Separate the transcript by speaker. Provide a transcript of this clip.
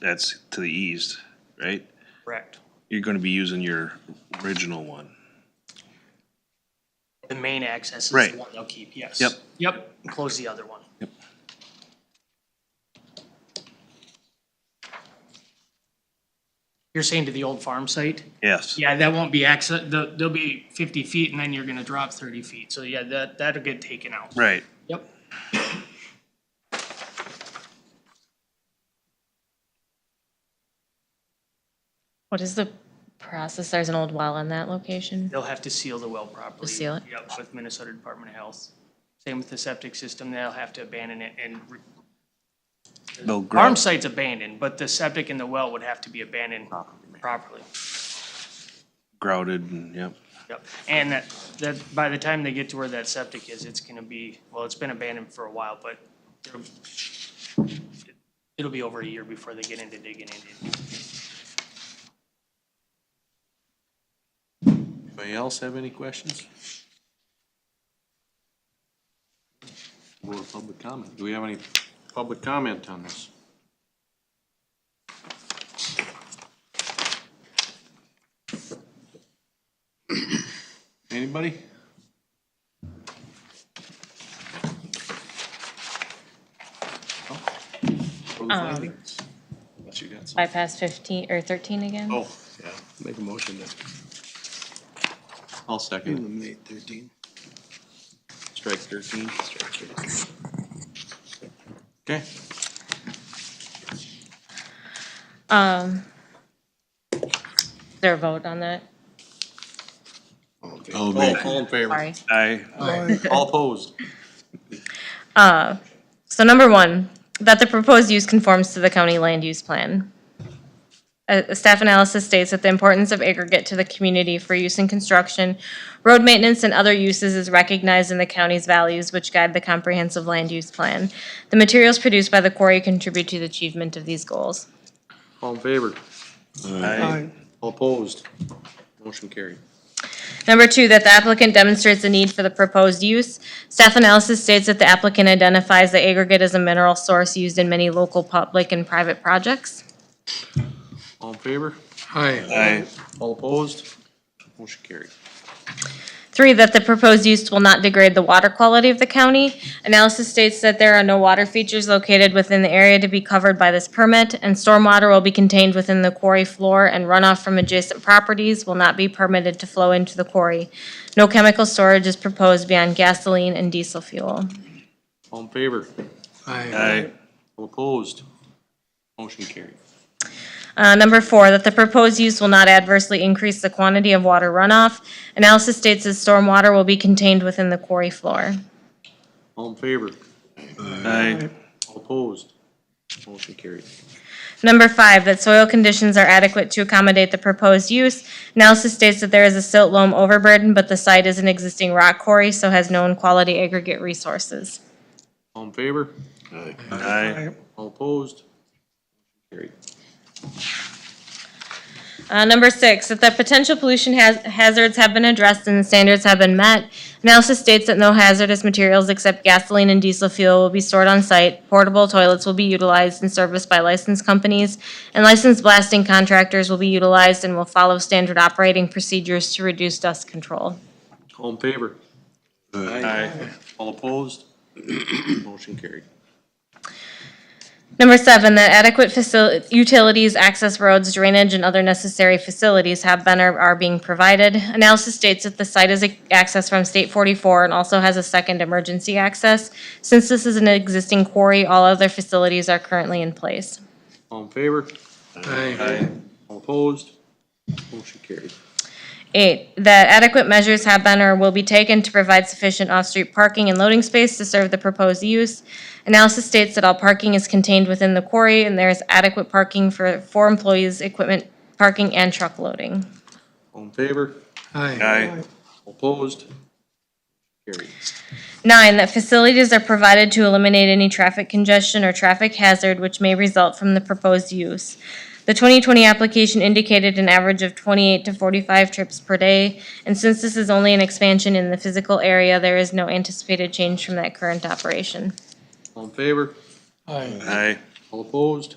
Speaker 1: that's to the east, right?
Speaker 2: Correct.
Speaker 1: You're gonna be using your original one.
Speaker 2: The main access is
Speaker 1: Right.
Speaker 2: the one they'll keep, yes.
Speaker 1: Yep.
Speaker 2: Yep, close the other one.
Speaker 1: Yep.
Speaker 2: You're saying to the old farm site?
Speaker 1: Yes.
Speaker 2: Yeah, that won't be access, the- there'll be fifty feet and then you're gonna drop thirty feet, so yeah, that, that'll get taken out.
Speaker 1: Right.
Speaker 2: Yep.
Speaker 3: What is the process? There's an old well in that location?
Speaker 2: They'll have to seal the well properly.
Speaker 3: Just seal it?
Speaker 2: Yep, with Minnesota Department of Health. Same with the septic system, they'll have to abandon it and re-
Speaker 1: They'll grow.
Speaker 2: farm site's abandoned, but the septic and the well would have to be abandoned properly.
Speaker 1: grouted and, yep.
Speaker 2: Yep, and that, that, by the time they get to where that septic is, it's gonna be, well, it's been abandoned for a while, but it'll- it'll be over a year before they get into digging into it.
Speaker 4: Anybody else have any questions? Or public comment? Do we have any public comment on this? Anybody? No? For the
Speaker 3: Um,
Speaker 4: findings? Unless you got some.
Speaker 3: Bypass 15, or 13 again?
Speaker 4: Oh, yeah.
Speaker 5: Make a motion to
Speaker 4: I'll second. it.
Speaker 5: eliminate thirteen.
Speaker 4: Strike thirteen. Okay.
Speaker 3: Um, is there a vote on that?
Speaker 4: All, all in favor?
Speaker 3: Sorry.
Speaker 1: I,
Speaker 4: All opposed?
Speaker 3: So number one, that the proposed use conforms to the county land use plan. A a staff analysis states that the importance of aggregate to the community for use in construction, road maintenance, and other uses is recognized in the county's values, which guide the comprehensive land use plan. The materials produced by the quarry contribute to the achievement of these goals.
Speaker 4: All in favor?
Speaker 1: I,
Speaker 4: All opposed? Motion carried.
Speaker 3: Number two, that the applicant demonstrates the need for the proposed use. Staff analysis states that the applicant identifies the aggregate as a mineral source used in many local public and private projects.
Speaker 4: All in favor?
Speaker 1: I,
Speaker 4: All opposed? Motion carried.
Speaker 3: Three, that the proposed use will not degrade the water quality of the county. Analysis states that there are no water features located within the area to be covered by this permit, and stormwater will be contained within the quarry floor, and runoff from adjacent properties will not be permitted to flow into the quarry. No chemical storage is proposed beyond gasoline and diesel fuel.
Speaker 4: All in favor?
Speaker 1: I,
Speaker 4: All opposed? Motion carried.
Speaker 3: Uh, number four, that the proposed use will not adversely increase the quantity of water runoff. Analysis states that stormwater will be contained within the quarry floor.
Speaker 4: All in favor?
Speaker 1: I,
Speaker 4: All opposed? Motion carried.
Speaker 3: Number five, that soil conditions are adequate to accommodate the proposed use. Analysis states that there is a silt loam overburden, but the site is an existing rock quarry, so has known quality aggregate resources.
Speaker 4: All in favor?
Speaker 1: I,
Speaker 4: All opposed? Motion Carried.
Speaker 3: Uh, number six, that the potential pollution haz- hazards have been addressed and the standards have been met. Analysis states that no hazardous materials except gasoline and diesel fuel will be stored on site. Portable toilets will be utilized and serviced by licensed companies, and licensed blasting contractors will be utilized and will follow standard operating procedures to reduce dust control.
Speaker 4: All in favor?
Speaker 1: I,
Speaker 4: All opposed? Motion carried.
Speaker 3: Number seven, that adequate facil- utilities, access roads, drainage, and other necessary facilities have been or are being provided. Analysis states that the site is accessed from State 44 and also has a second emergency access. Since this is an existing quarry, all other facilities are currently in place.
Speaker 4: All in favor?
Speaker 1: I,
Speaker 4: All opposed? Motion carried.
Speaker 3: Eight, that adequate measures have been or will be taken to provide sufficient off-street parking and loading space to serve the proposed use. Analysis states that all parking is contained within the quarry and there is adequate parking for four employees, equipment parking, and truck loading.
Speaker 4: All in favor?
Speaker 1: I,
Speaker 4: All opposed? Carried.
Speaker 3: Nine, that facilities are provided to eliminate any traffic congestion or traffic hazard which may result from the proposed use. The 2020 application indicated an average of 28 to 45 trips per day, and since this is only an expansion in the physical area, there is no anticipated change from that current operation.
Speaker 4: All in favor?
Speaker 1: I,
Speaker 4: All opposed?